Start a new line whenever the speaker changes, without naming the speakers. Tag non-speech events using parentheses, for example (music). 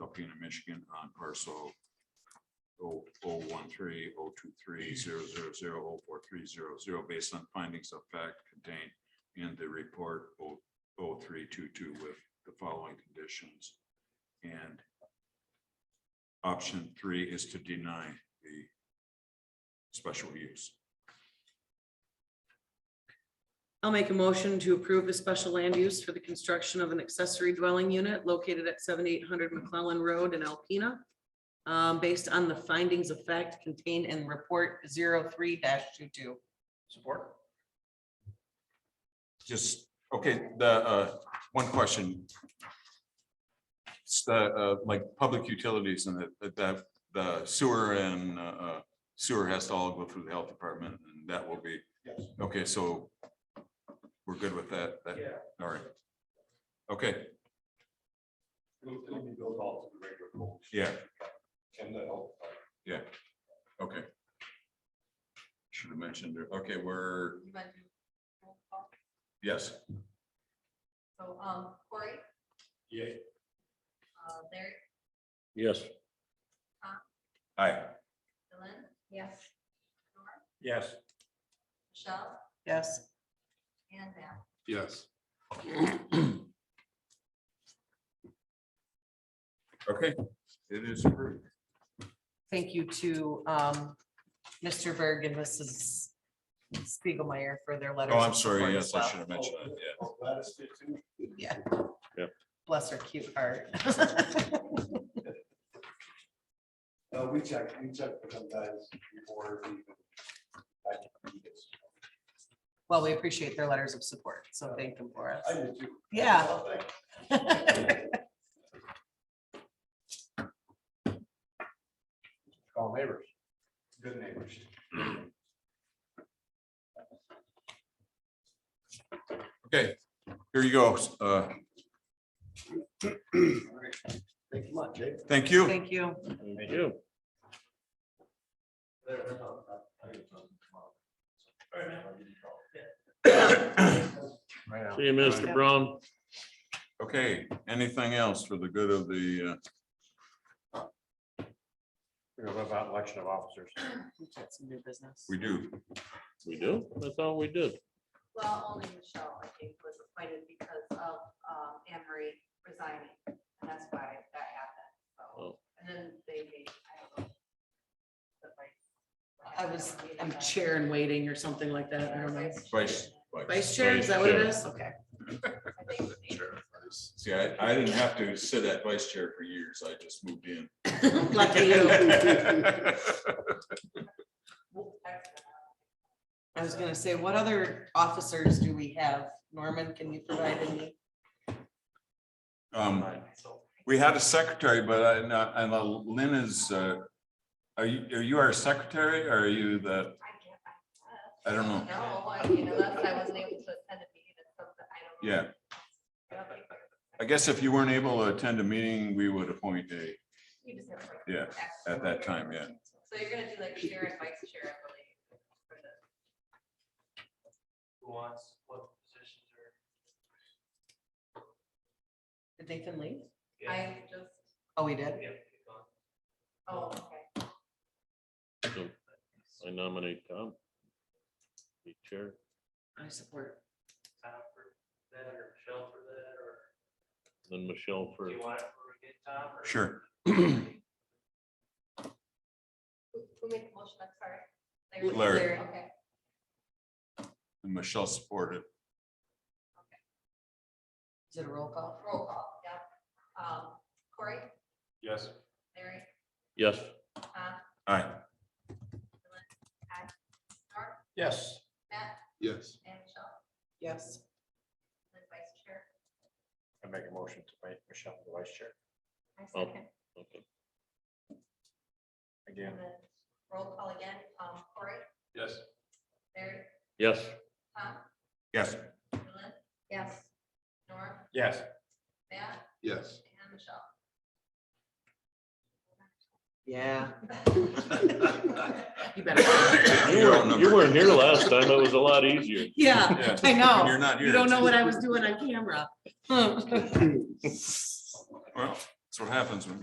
Alpena, Michigan on parcel oh, oh, one, three, oh, two, three, zero, zero, zero, oh, four, three, zero, zero, based on findings of fact contained in the report oh, oh, three, two, two, with the following conditions. And option three is to deny the special use.
I'll make a motion to approve a special land use for the construction of an accessory dwelling unit located at seventy-eight hundred McClellan Road in Alpena. um, based on the findings of fact contained in report 3 22
Support.
Just, okay, the, uh, one question. It's the, uh, like, public utilities and the, the, the sewer and, uh, sewer has to all go through the health department, and that will be,
Yes.
okay, so we're good with that, that,
Yeah.
all right. Okay,
It'll, it'll be built all to the regular rules
yeah,
and the health.
okay. Should have mentioned, it. okay, we're,
you might do roll call.
yes,
So, um, Corey,
Yeah.
uh, Larry,
Yes.
aye,
Dylan. Yes.
Yes.
Michelle
Yes.
and Matt.
Yes.
okay, it is approved.
Thank you to um, Mr. Berg and Mrs. Spiegelmeier for their letters.
Oh, I'm
of support
sorry,
as
yes, I
well.
should have mentioned it, yeah.
Gladys did too.
Yeah.
Yep.
Bless her cute
(laughs)
heart.
No, Uh, we checked, we checked with them guys before. we even- I did this.
Well, we appreciate their letters of support, so thank them for
I
us.
did too.
Yeah.
Call neighbors. Good neighbors.
Okay, here you go. Uh,
All right. Thank you much, Jake.
Thank you.
(laughs) Thank you.
Thank you. See you, Mr. Brown.
Okay, anything else for the good of the, uh,
about election of officers.
We've got some new business.
we do?
We do. That's all we did.
Well, only Michelle, I think, was appointed because of, um, Anne Marie resigning, and that's why that happened, so.
Oh.
And then they, made, I don't know. the vice-
I was, I'm chair and waiting or something like that. I don't know.
Vice.
Vice chair, is that what it is? Okay.
I think the name
Chair. See, I, I didn't have to sit at vice chair for years. I just moved in.
(laughs) Lucky you. (laughs)
was- that's-
I was gonna say, what other officers do we have? Norman, can you provide any?
(laughs) Um, we had a secretary, but I, no, and uh, Lynn is, uh, are you, are you our secretary or are you the,
I can't- I-
I don't know.
No, I mean, unless I wasn't able to attend a meeting, it's something I don't. know.
Yeah,
I don't think-
I guess if you weren't able to attend a meeting, we would appoint a,
You just have to. like,
Yeah,
ask
at that
somebody.
time, yeah.
So you're gonna do like chair and vice chair, I believe. for the-
who wants, what positions are.
Did Nathan leave?
Yeah,
I just,
Oh, he did.
we have to pick on.
oh, okay.
So I nominate Tom. Be chair.
I support.
Tom for that or Michelle for that, or
Then Michelle for,
do you want it for again, Tom? or-
sure. (clears throat)
Who who made the motion? I'm sorry.
Larry.
Okay.
Michelle supported.
Is it a roll call?
Roll call, yeah. Um, Corey,
Yes.
Larry,
yes,
Tom,
Aye.
Norm,
Yes.
Matt,
Yes.
and Michelle,
Yes.
the vice chair.
I make a motion to make Michelle the vice chair.
I
Oh.
second.
okay,
Again.
And then roll call again. Um, Corey,
Yes.
Larry,
yes,
Tom,
Yes.
Dylan. Yes. Norm,
Yes.
Matt,
Yes.
and Michelle.
Yeah.
(laughs)
(laughs)
You're
You better.
You weren't-
outnumbered.
you weren't here last time. It was a lot easier.
Yeah,
Yeah.
(laughs) I
When
know.
You're not here.
You don't know
it's-
what I was doing on camera. Hmm.
Well, that's what happens when